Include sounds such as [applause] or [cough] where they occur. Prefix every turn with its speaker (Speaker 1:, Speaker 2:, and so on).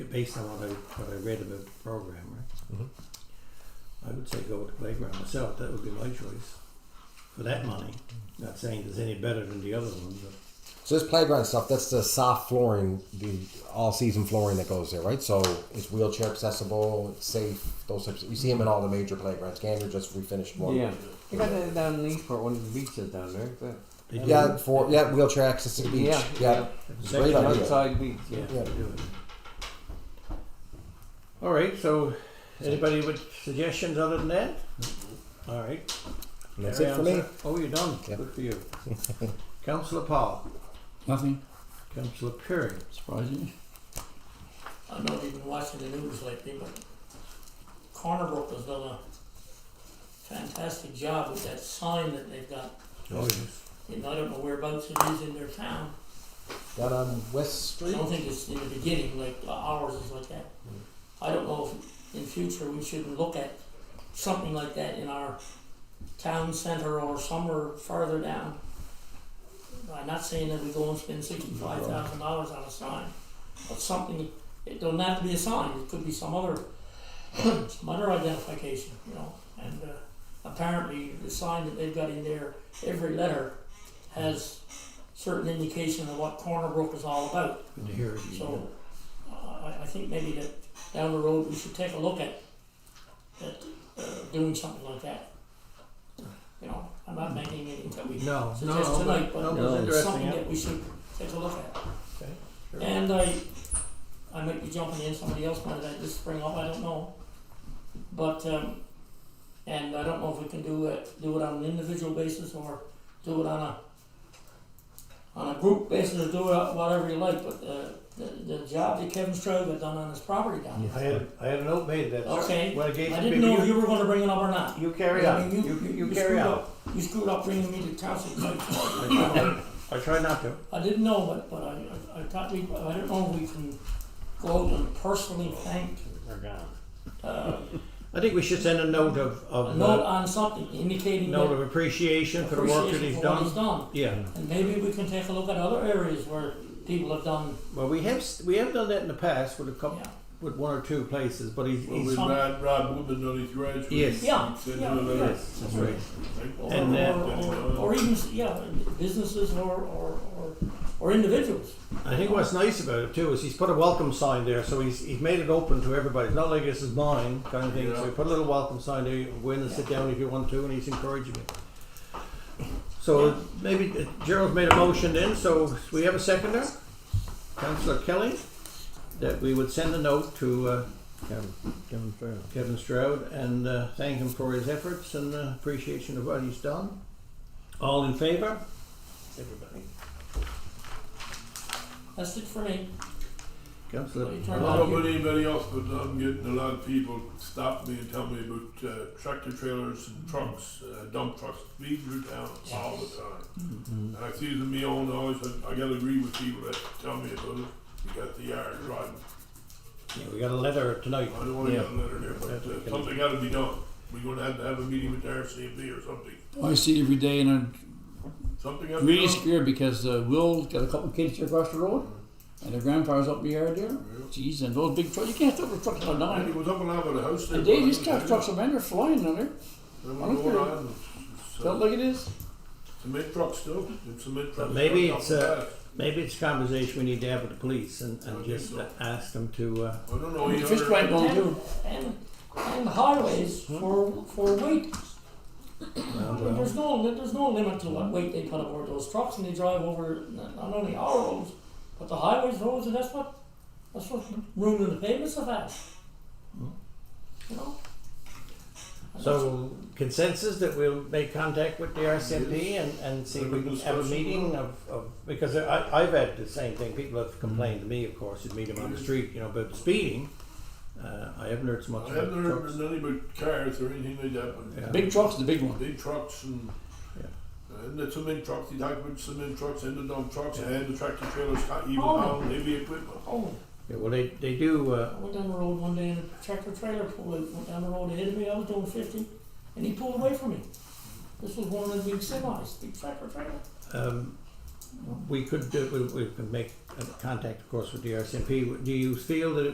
Speaker 1: based on what I what I read about the program, right?
Speaker 2: Mhm.
Speaker 1: I would say go with the playground myself. That would be my choice for that money. Not saying there's any better than the other one, but
Speaker 2: So this playground stuff, that's the soft flooring, the all season flooring that goes there, right? So it's wheelchair accessible, it's safe, those types. Of, you see them in all the major playgrounds. Gander just refinished one.
Speaker 3: Yeah. They got that down in Eastport, one of the beaches down there. That,
Speaker 1: they do
Speaker 2: Yeah, for yeah, wheelchair access to the beach.
Speaker 3: Yeah,
Speaker 2: Yeah,
Speaker 3: yeah.
Speaker 1: it.
Speaker 2: great
Speaker 3: The
Speaker 2: idea.
Speaker 3: outside beach, yeah.
Speaker 1: Yeah,
Speaker 2: Yeah.
Speaker 1: they do it. All right. So, anybody with suggestions other than that? All right.
Speaker 2: And that's
Speaker 1: Carry
Speaker 2: it for
Speaker 1: on,
Speaker 2: me.
Speaker 1: sir. Oh, you're done.
Speaker 2: Yeah.
Speaker 1: Good for you. [laughs] Councillor Paul,
Speaker 4: Nothing
Speaker 1: Councillor Perry,
Speaker 4: surprising.
Speaker 5: I'm not even watching the news lately, but Cornerbrook has done a fantastic job with that sign that they've got.
Speaker 1: oh yes,
Speaker 5: And I don't know whereabouts it is in their town.
Speaker 2: Down on West
Speaker 5: I
Speaker 2: Street.
Speaker 5: don't think it's in the beginning, like ours is like that. I don't know if in future we shouldn't look at something like that in our town center or somewhere farther down. I'm not saying that we go and spend sixty-five thousand dollars on a sign, but something, it don't have to be a sign, it could be some other, [clears throat] some other identification, you know? And, uh, apparently the sign that they've got in there, every letter has certain indication of what Cornerbrook is all about.
Speaker 1: good to hear it.
Speaker 5: So, uh, I, I think maybe that down the road, we should take a look at, at, uh, doing something like that. You know, I'm not making anything that we
Speaker 1: No, no,
Speaker 5: suggest
Speaker 1: no,
Speaker 5: tonight,
Speaker 1: but, no,
Speaker 5: but
Speaker 3: No.
Speaker 1: it's
Speaker 5: it's something
Speaker 1: interesting.
Speaker 5: that we should take a look at.
Speaker 1: Okay, sure.
Speaker 5: And I, I might be jumping in, somebody else might have this spring up, I don't know. But, um, and I don't know if we can do it, do it on an individual basis or do it on a, on a group basis or do it whatever you like, but uh, the, the, the job that Kevin Strode had done on his property down
Speaker 1: I had I had a note made that.
Speaker 5: Okay.
Speaker 1: When I gave
Speaker 5: there. I
Speaker 1: to
Speaker 5: didn't
Speaker 1: people,
Speaker 5: know if you were gonna bring it up or not.
Speaker 1: You carry
Speaker 5: I
Speaker 1: on.
Speaker 5: mean,
Speaker 1: You, you, you
Speaker 5: screwed
Speaker 1: carry on.
Speaker 5: up- You screwed up bringing me to council.
Speaker 1: I [laughs]
Speaker 5: [laughs]
Speaker 1: try- I try not to.
Speaker 5: I didn't know, but, but I, I, I thought we, I don't know if we can go out and personally thank, uh,
Speaker 1: I think we should send a note of,
Speaker 5: a
Speaker 1: of
Speaker 5: note
Speaker 1: note,
Speaker 5: on something indicating
Speaker 1: note
Speaker 5: that
Speaker 1: of appreciation for the work that
Speaker 5: appreciation
Speaker 1: he's
Speaker 5: for what he's
Speaker 1: done.
Speaker 5: done.
Speaker 1: Yeah,
Speaker 5: And maybe we can take a look at other areas where people have done,
Speaker 1: well, we have, s- we have done that in the past with a couple,
Speaker 5: yeah,
Speaker 1: with one or two places, but he's,
Speaker 6: Well,
Speaker 1: he's,
Speaker 6: with
Speaker 5: some-
Speaker 6: Rod, Rod Woodman on his graduate.
Speaker 1: Yes.
Speaker 5: yeah,
Speaker 6: Said
Speaker 5: yeah,
Speaker 6: no, no, no.
Speaker 5: yeah.
Speaker 1: yes, that's right.
Speaker 5: Or,
Speaker 1: And, uh,
Speaker 5: or, or, or even, yeah, businesses or, or, or, or individuals.
Speaker 1: I think what's nice about it too is he's put a welcome sign there, so he's he's made it open to everybody. It's not like this is mine kind of thing. So
Speaker 6: Yeah.
Speaker 1: he put a little welcome sign there. You can go in and sit down if you want to, and he's encouraging it. So maybe uh, Gerald's made a motion then. So we have a seconder, Councillor Kelly, that we would send a note to uh, Kevin Stroud and uh, thank him for his efforts and uh, appreciation of what he's done. All in favour? Everybody.
Speaker 5: That's it for me.
Speaker 1: Councillor.
Speaker 6: I
Speaker 5: Turn it on.
Speaker 6: don't know about anybody else, but I'm getting a lot of people stop me and tell me about uh, tractor trailers and trucks, uh, dump trucks, leave your town all the time. And I see them me own always. I, I gotta agree with people that tell me about it because they are driving.
Speaker 1: Yeah, we got a letter
Speaker 6: I
Speaker 1: tonight.
Speaker 6: don't want to
Speaker 1: Yeah.
Speaker 6: get a letter there, but uh, something got to be done. We're gonna have to have a meeting with the RCMP or something.
Speaker 4: I see it every day, and I'm
Speaker 6: Something got to be
Speaker 4: really
Speaker 6: done.
Speaker 4: scared because uh, Will's got a couple of kids here across the road, and their grandfather's up in the yard there. Jeez, and those big trucks, you can't throw the trucks on
Speaker 6: And
Speaker 4: down.
Speaker 6: it was up and out of the house.
Speaker 4: And
Speaker 6: there,
Speaker 4: they just
Speaker 6: but-
Speaker 4: got trucks on there flying on there.
Speaker 6: They were
Speaker 4: I don't
Speaker 6: going
Speaker 4: care.
Speaker 6: on. It's, uh,
Speaker 4: Felt like it is.
Speaker 6: Cement truck still, it's cement truck.
Speaker 1: maybe it's, uh, Maybe it's a conversation we need to have with the police and, and just ask them to, uh,
Speaker 6: I don't Oh, know.
Speaker 4: The
Speaker 6: either.
Speaker 4: fish plant going
Speaker 5: And,
Speaker 4: too.
Speaker 5: and, and highways
Speaker 1: Hmm.
Speaker 5: for, for weight. I mean, There's no, there's no limit to what weight they put aboard those trucks and they drive over not not only our roads, but the highways, roads, and that's what, that's what ruining the pavements of that. You know? And
Speaker 1: so consensus that we'll make contact with the RCMP and, and see if we can have a meeting of, of, because I, I've had the same thing, people have complained to me, of course, you'd meet them on the street, you know, about speeding. Uh, I haven't heard so
Speaker 6: I
Speaker 1: much about
Speaker 6: haven't heard
Speaker 1: trucks.
Speaker 6: nothing about cars or anything like that, but
Speaker 1: Yeah.
Speaker 4: Big trucks, the big one.
Speaker 6: big trucks and.
Speaker 1: Yeah.
Speaker 6: And the cement trucks, they talk about cement trucks and the dump trucks
Speaker 1: Yeah.
Speaker 6: and the tractor trailers, got even
Speaker 5: Oh.
Speaker 6: down heavy equipment.
Speaker 5: Oh,
Speaker 1: Yeah, well, they, they do, uh,
Speaker 5: I went down the road one day and a tractor trailer pulled out, went down the road ahead of me, I was doing fifty, and he pulled away from me. This was one of the big semis, big tractor trailer.
Speaker 1: um, we could, do- we, we can make uh, contact, of course, with the RCMP. Do you feel that it